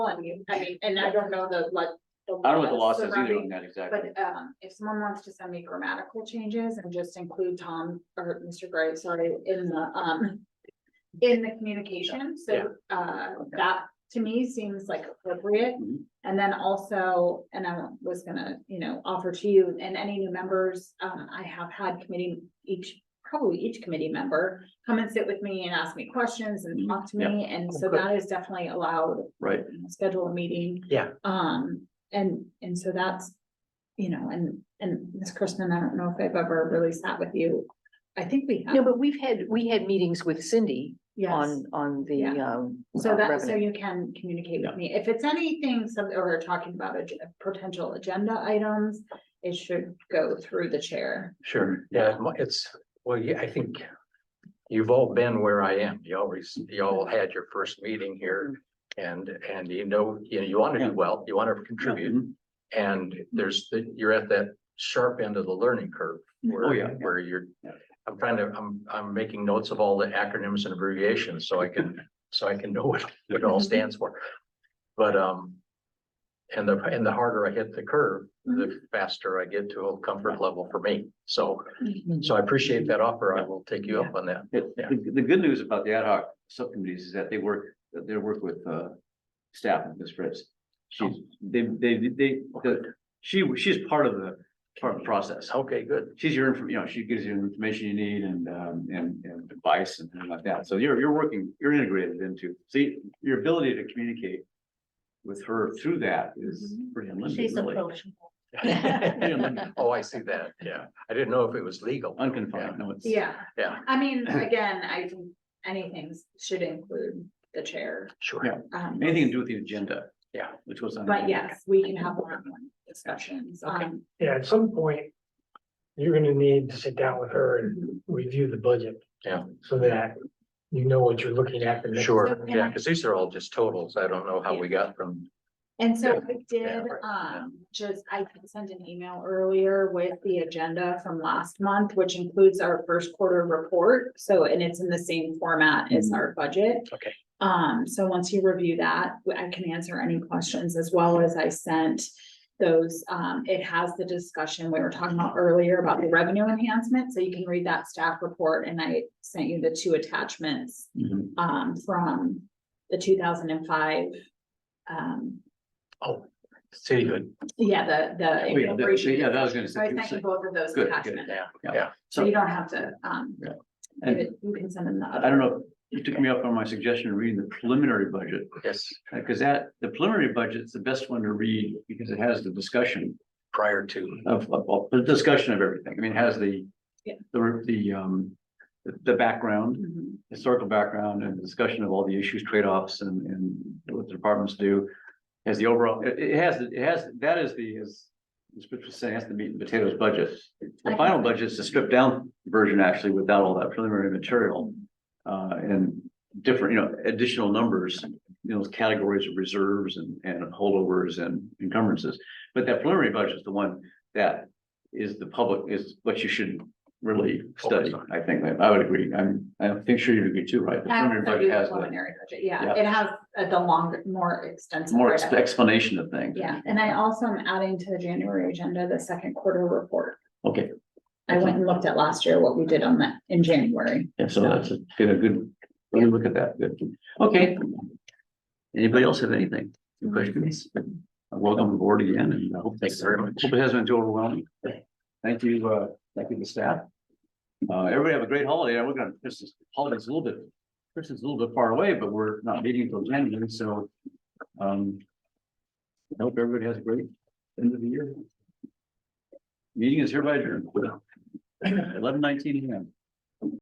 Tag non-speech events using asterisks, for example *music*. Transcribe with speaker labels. Speaker 1: one, you- I mean, and I don't know the, like.
Speaker 2: I don't know what the law says either on
Speaker 1: surrounding-
Speaker 2: that exactly.
Speaker 1: But, um, if someone wants to send me grammatical changes and just include Tom or Mr. Gray, sorry, in the, um. In the communication,
Speaker 2: Yeah.
Speaker 1: so, uh, that to me seems like appropriate.
Speaker 2: Mhm.
Speaker 1: And then also, and I was gonna, you know, offer to you and any new members, um, I have had committee each. Probably each committee member come and sit with me and ask me questions
Speaker 2: Mm-hmm.
Speaker 1: and talk to me,
Speaker 2: Oh,
Speaker 1: and so
Speaker 3: Okay.
Speaker 1: that is definitely allowed
Speaker 2: Right.
Speaker 1: schedule a meeting.
Speaker 3: Yeah.
Speaker 1: Um, and, and so that's, you know, and, and Ms. Chrisman, I don't know if I've ever really sat with you. I think we
Speaker 4: No,
Speaker 1: have,
Speaker 4: but we've had, we had meetings with Cindy
Speaker 1: yes.
Speaker 4: on, on the,
Speaker 1: Yeah.
Speaker 4: um.
Speaker 1: So
Speaker 4: uh,
Speaker 1: that, so
Speaker 4: revenue.
Speaker 1: you can communicate with me. If it's anything, some, or talking about a potential agenda items, it should go through the chair.
Speaker 3: Sure, yeah, mo- it's, well, yeah, I think you've all been where I am. You always, you all had your first meeting here. And, and you know, you know, you want to do well, you want to contribute.
Speaker 2: Mhm.
Speaker 3: And there's, the- you're at that sharp end of the learning curve. where-
Speaker 2: Oh, yeah.
Speaker 3: Where you're,
Speaker 2: Yeah.
Speaker 3: I'm trying to, I'm, I'm making notes of all the acronyms and abbreviations so I
Speaker 2: *laughs*
Speaker 3: can, so I can know what it all stands for. But, um, and the, and the harder I hit the curve,
Speaker 2: Mm-hmm.
Speaker 3: the faster I get to a comfort level for me. So so I appreciate that offer. I will take you up on that.
Speaker 2: The, the- the good news about the ad hoc subcommittees is that they work, that they work with, uh, staff and Ms. Fritz. She's,
Speaker 3: Oh.
Speaker 2: they, they, they, the- she, she's part of the, part of the process.
Speaker 3: Okay, good.
Speaker 2: She's your, infor- you know, she gives you the information you need and, um, and, and advice and things like that. So you're, you're working, you're integrated into, see, your ability to communicate with her through that is
Speaker 1: Mm-hmm.
Speaker 2: pretty unlimited, really. *laughs*
Speaker 1: *laughs*
Speaker 3: Oh, I see that. Yeah. I didn't know if it was legal.
Speaker 2: Unconfined, no, it's.
Speaker 1: Yeah,
Speaker 3: Yeah,
Speaker 1: I mean, again, I think anything should include the chair.
Speaker 3: sure.
Speaker 2: Yeah.
Speaker 1: Um,
Speaker 2: Anything to do with the agenda.
Speaker 3: Yeah.
Speaker 2: Which was. on-
Speaker 1: But yes, we can have one-on-one discussions.
Speaker 4: Okay.
Speaker 1: Um,
Speaker 5: Yeah, at some point, you're gonna need to sit down with her
Speaker 1: Um,
Speaker 5: and review the budget.
Speaker 3: Yeah.
Speaker 5: So that you know what you're looking at. the next-
Speaker 3: Sure. Yeah, because these are all just totals. I don't know how we got from,
Speaker 1: And so
Speaker 3: Yeah.
Speaker 1: I did, um, just, I had sent an email earlier with the agenda from last month, which includes our first quarter report. So, and it's in the same format as our budget.
Speaker 3: Mm-hmm. Okay.
Speaker 1: Um, so once you review that, I can answer any questions as well as I sent those, um, it has the discussion we were talking about earlier about the revenue enhancement. So you can read that staff report and I sent you the two attachments
Speaker 2: Mhm.
Speaker 1: um, from the two thousand and five. Um,
Speaker 3: oh, city good.
Speaker 1: yeah, the, the
Speaker 2: Oh, Yeah, that-
Speaker 1: incorporation.
Speaker 2: yeah, that was gonna
Speaker 1: So I sent you
Speaker 2: say.
Speaker 1: both of those
Speaker 2: Good, good,
Speaker 1: attachments,
Speaker 3: Yeah,
Speaker 2: Yeah.
Speaker 3: yeah.
Speaker 1: so you
Speaker 2: So,
Speaker 1: don't have to, um,
Speaker 2: Yeah.
Speaker 1: give
Speaker 2: and
Speaker 1: it, you can send them the
Speaker 2: I
Speaker 1: other.
Speaker 2: don't know, you took me up on my suggestion of reading the preliminary budget,
Speaker 3: Yes,
Speaker 2: because that, the preliminary budget's the best one to read because it has the discussion
Speaker 3: prior to.
Speaker 2: of, of, of- the discussion of everything. I mean, it has the
Speaker 1: Yeah.
Speaker 2: the, the, um, the- the background,
Speaker 1: Mhm.
Speaker 2: historical background and discussion of all the issues, trade-offs and, and what the departments do. Has the overall, it, it has, it has, that is the, is, as Rich was saying, that's the meat and potatoes budget. The final budget is the stripped down version actually without all that preliminary material. Uh, and different, you know, additional numbers, you know, categories of reserves and, and holdovers and encumbrances. But that preliminary budget is the one that is the public, is what you should really study, I think, I would agree, I'm, I think sure you'd agree too, right? The
Speaker 1: I also
Speaker 2: preliminary
Speaker 1: do
Speaker 2: budget
Speaker 1: the
Speaker 2: has the
Speaker 1: preliminary budget, yeah,
Speaker 2: Yeah.
Speaker 1: it has uh, the longer, more extensive.
Speaker 2: more
Speaker 1: write-up.
Speaker 2: ex- explanation of things.
Speaker 1: Yeah, and I also am adding to the January agenda the second quarter report.
Speaker 2: Okay,
Speaker 1: I went and looked at last year what we did on that in January.
Speaker 2: yeah, so that's a, get a good, let me look at that, good, okay. Anybody else have anything, Any questions? Welcome aboard again, and I hope.
Speaker 3: Thank you very much.
Speaker 2: Hope it hasn't been too overwhelming. Thank you, uh, thank you to staff. Uh, everybody have a great holiday, we're gonna, this is, holiday's a little bit, Christmas is a little bit far away, but we're not meeting until January, so. Um. I hope everybody has a great end of the year. Meeting is hereby adjourned. Eleven nineteen AM.